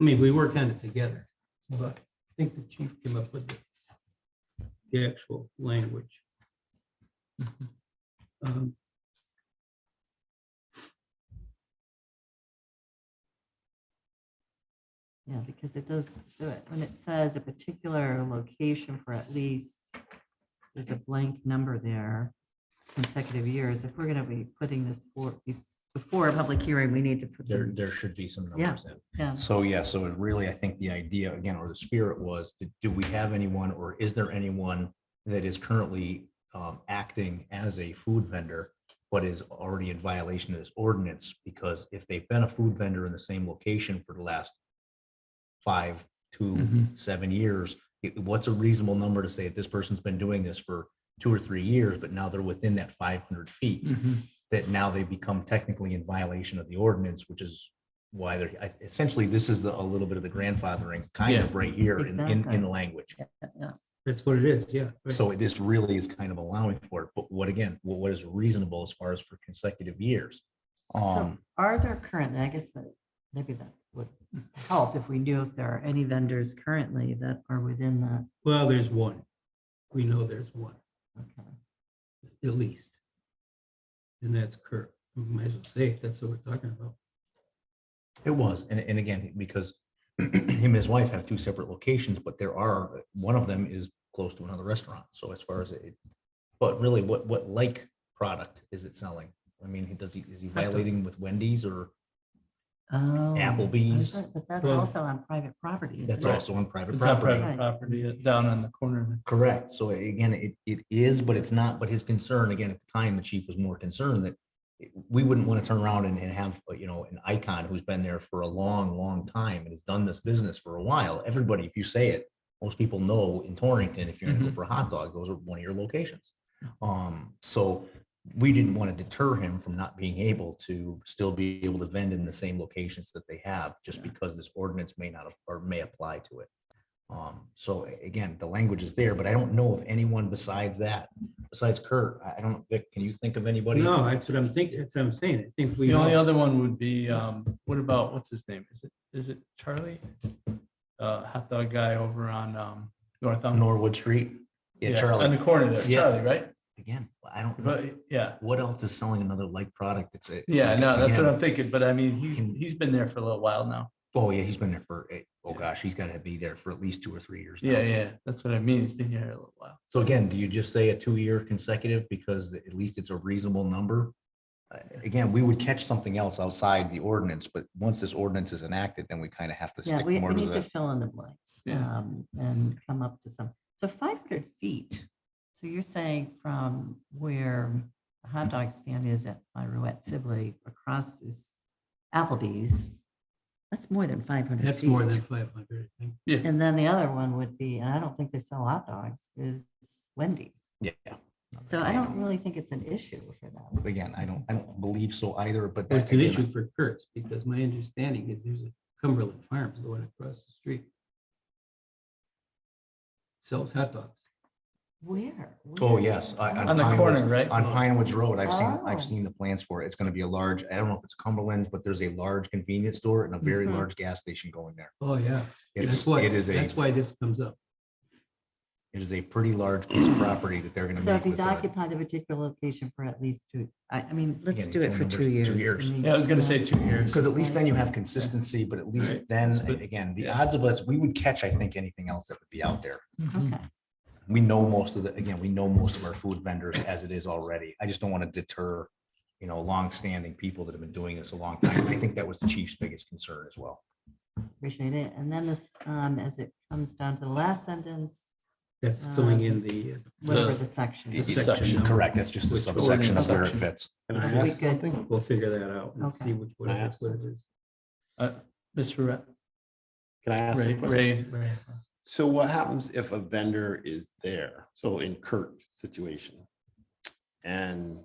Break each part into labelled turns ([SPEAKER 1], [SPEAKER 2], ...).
[SPEAKER 1] I mean, we worked on it together, but I think the chief came up with the, the actual language. Um,
[SPEAKER 2] Yeah, because it does, so it- when it says a particular location for at least, there's a blank number there, consecutive years, if we're gonna be putting this for, before a public hearing, we need to put
[SPEAKER 3] There,
[SPEAKER 2] some,
[SPEAKER 3] there should be some
[SPEAKER 2] Yeah.
[SPEAKER 3] numbers in.
[SPEAKER 2] yeah,
[SPEAKER 3] So, yeah, so it really, I think the idea again, or the spirit was, d- do we have anyone or is there anyone that is currently um, acting as a food vendor, but is already in violation of this ordinance? Because if they've been a food vendor in the same location for the last five,
[SPEAKER 1] Mm-hmm.
[SPEAKER 3] two, seven years, it- what's a reasonable number to say that this person's been doing this for two or three years, but now they're within that five hundred feet? that now they become technically in violation of the ordinance, which is why they're, I- essentially, this is the, a little bit of the grandfathering kind of right here in, in,
[SPEAKER 2] Exactly.
[SPEAKER 3] in the language.
[SPEAKER 2] yeah,
[SPEAKER 1] That's what it is, yeah. right.
[SPEAKER 3] So this really is kind of allowing for it, but what, again, what, what is reasonable as far as for consecutive years? Um,
[SPEAKER 2] Are there currently, I guess that maybe that would help if we knew if there are any vendors currently that are within that.
[SPEAKER 1] Well, there's one. We know there's one,
[SPEAKER 2] Okay.
[SPEAKER 1] at least. And that's Kurt. We Might as well say it. That's what we're talking about.
[SPEAKER 3] it was, and, and again, because him and his wife have two separate locations, but there are, one of them is close to another restaurant, so as far as it, but really, what, what like product is it selling? I mean, he- does he, is he
[SPEAKER 2] dog.
[SPEAKER 3] violating with Wendy's or?
[SPEAKER 2] Oh.
[SPEAKER 3] Applebee's.
[SPEAKER 2] that's right, But that's
[SPEAKER 4] Well-
[SPEAKER 2] also on private property. isn't
[SPEAKER 3] That's
[SPEAKER 2] it?
[SPEAKER 3] also on private
[SPEAKER 4] It's on
[SPEAKER 3] property.
[SPEAKER 2] Right.
[SPEAKER 4] private property uh, down on the corner.
[SPEAKER 3] Correct. So again, it, it is, but it's not, but his concern, again, at the time, the chief was more concerned that we wouldn't want to turn around and, and have, uh, you know, an icon who's been there for a long, long time and has done this business for a while. Everybody, if you say it, most people know in Torrington, if you're gonna go
[SPEAKER 4] Mhm.
[SPEAKER 3] for a hot dog, those are one of your locations. Um, so we didn't want to deter him from not being able to still be able to vend in the same locations that they have, just because this ordinance may not, ap- or may apply to it. Um, so a- again, the language is there, but I don't know of anyone besides that, besides Kurt. I, I don't, Vic, can you think of anybody?
[SPEAKER 1] No, that's what I'm thinking. That's what I'm saying. I think we
[SPEAKER 4] The only
[SPEAKER 1] know.
[SPEAKER 4] other one would be, um, what about, what's his name? Is it, is it Charlie? Uh, hot dog guy over on, um, North.
[SPEAKER 3] On Norwood Street? Yeah,
[SPEAKER 4] On
[SPEAKER 3] Charlie,
[SPEAKER 4] the corner there,
[SPEAKER 3] Yeah.
[SPEAKER 4] Charlie, right?
[SPEAKER 3] again, I don't, know.
[SPEAKER 4] But, yeah,
[SPEAKER 3] what else is selling another like product? It's a.
[SPEAKER 4] yeah, no, that's what
[SPEAKER 3] again,
[SPEAKER 4] I'm thinking, but I mean, he's,
[SPEAKER 3] Can-
[SPEAKER 4] he's been there for a little while now.
[SPEAKER 3] Oh, yeah, he's been there for, eh, oh gosh, he's gotta be there for at least two or three years. now.
[SPEAKER 4] Yeah, yeah, that's what I mean. He's been here a little while.
[SPEAKER 3] So again, do you just say a two-year consecutive because at least it's a reasonable number? Uh, Again, we would catch something else outside the ordinance, but once this ordinance is enacted, then we kind of have to
[SPEAKER 2] Yeah,
[SPEAKER 3] stick
[SPEAKER 2] we,
[SPEAKER 3] more
[SPEAKER 2] we
[SPEAKER 3] to
[SPEAKER 2] need to
[SPEAKER 3] the.
[SPEAKER 2] fill in the blanks
[SPEAKER 4] Yeah.
[SPEAKER 2] um, and come up to some, so five hundred feet. So you're saying from where the hot dog stand is at by Ruette Sibley across is Applebee's. That's more than five hundred.
[SPEAKER 1] That's more than five hundred, I think.
[SPEAKER 2] And then the other one would be, and I don't think they sell hot dogs, is Wendy's.
[SPEAKER 3] Yeah.
[SPEAKER 2] So I don't really think it's an issue for them.
[SPEAKER 3] Again, I don't, I don't believe so either, but.
[SPEAKER 1] Well, It's
[SPEAKER 3] that's
[SPEAKER 1] an issue for Kurt's because my understanding is there's a Cumberland Farms going across the street. Sells hot dogs.
[SPEAKER 2] Where?
[SPEAKER 3] Oh,
[SPEAKER 2] Where?
[SPEAKER 3] yes. I- I-
[SPEAKER 4] On the
[SPEAKER 3] Pine Woods-
[SPEAKER 4] corner, right?
[SPEAKER 3] On Pine Woods Road, I've seen,
[SPEAKER 2] Oh.
[SPEAKER 3] I've seen the plans for it. It's gonna be a large, I don't know if it's Cumberland's, but there's a large convenience store and a very
[SPEAKER 2] Mhm.
[SPEAKER 3] large gas station going there.
[SPEAKER 1] Oh, yeah.
[SPEAKER 3] It's,
[SPEAKER 1] That's why-
[SPEAKER 3] it is a,
[SPEAKER 1] That's
[SPEAKER 3] it
[SPEAKER 1] why this comes up.
[SPEAKER 3] is a pretty large piece of property that they're gonna
[SPEAKER 2] So
[SPEAKER 3] make.
[SPEAKER 2] if he's
[SPEAKER 3] with, uh,
[SPEAKER 2] occupy the particular location for at least two, I, I mean, let's
[SPEAKER 3] Again,
[SPEAKER 2] do
[SPEAKER 3] phone
[SPEAKER 2] it for
[SPEAKER 3] numbers,
[SPEAKER 2] two
[SPEAKER 3] two
[SPEAKER 2] years. I
[SPEAKER 3] years.
[SPEAKER 2] mean,
[SPEAKER 4] Yeah, I was gonna say two years.
[SPEAKER 3] Because at least then you have consistency, but at least
[SPEAKER 4] Alright,
[SPEAKER 3] then,
[SPEAKER 4] that's good.
[SPEAKER 3] a- again, the
[SPEAKER 4] Yeah.
[SPEAKER 3] odds of us, we would catch, I think, anything else that would be out there.
[SPEAKER 2] Okay,
[SPEAKER 4] hmm.
[SPEAKER 3] We know most of the, again, we know most of our food vendors as it is already. I just don't want to deter, you know, longstanding people that have been doing this a long time. And I think that was the chief's biggest concern as well.
[SPEAKER 2] appreciate it. And then this, um, as it comes down to the last sentence,
[SPEAKER 1] That's filling in the, uh,
[SPEAKER 2] whatever
[SPEAKER 4] The-
[SPEAKER 2] the section
[SPEAKER 1] the
[SPEAKER 2] is.
[SPEAKER 4] Yes. section
[SPEAKER 1] section. number.
[SPEAKER 3] Correct, that's just the
[SPEAKER 1] Which
[SPEAKER 3] subsection of where it
[SPEAKER 4] ordinance?
[SPEAKER 3] fits.
[SPEAKER 1] Can
[SPEAKER 2] Are
[SPEAKER 1] I
[SPEAKER 2] we
[SPEAKER 1] ask
[SPEAKER 2] good?
[SPEAKER 1] something? We'll figure that out and
[SPEAKER 2] Okay.
[SPEAKER 1] see which one
[SPEAKER 5] Can I
[SPEAKER 1] it is,
[SPEAKER 5] ask
[SPEAKER 1] what it is.
[SPEAKER 4] Mr. Uh, Ra-
[SPEAKER 5] Can I ask? a
[SPEAKER 4] Ray,
[SPEAKER 5] question?
[SPEAKER 4] Ray,
[SPEAKER 5] So what happens if a vendor is there? So in Kurt's situation. And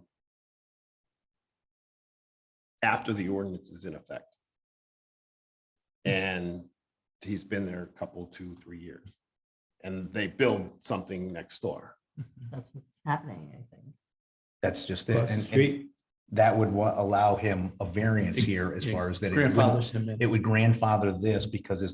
[SPEAKER 5] after the ordinance is in effect. And he's been there a couple, two, three years. And they build something next door.
[SPEAKER 2] That's what's happening, I think.
[SPEAKER 3] That's just it.
[SPEAKER 1] Across the
[SPEAKER 3] And- and-
[SPEAKER 1] street,
[SPEAKER 3] that would wa- allow him a variance here as far as that. it wouldn't-
[SPEAKER 1] grandfathers him in.
[SPEAKER 3] It would grandfather this because it's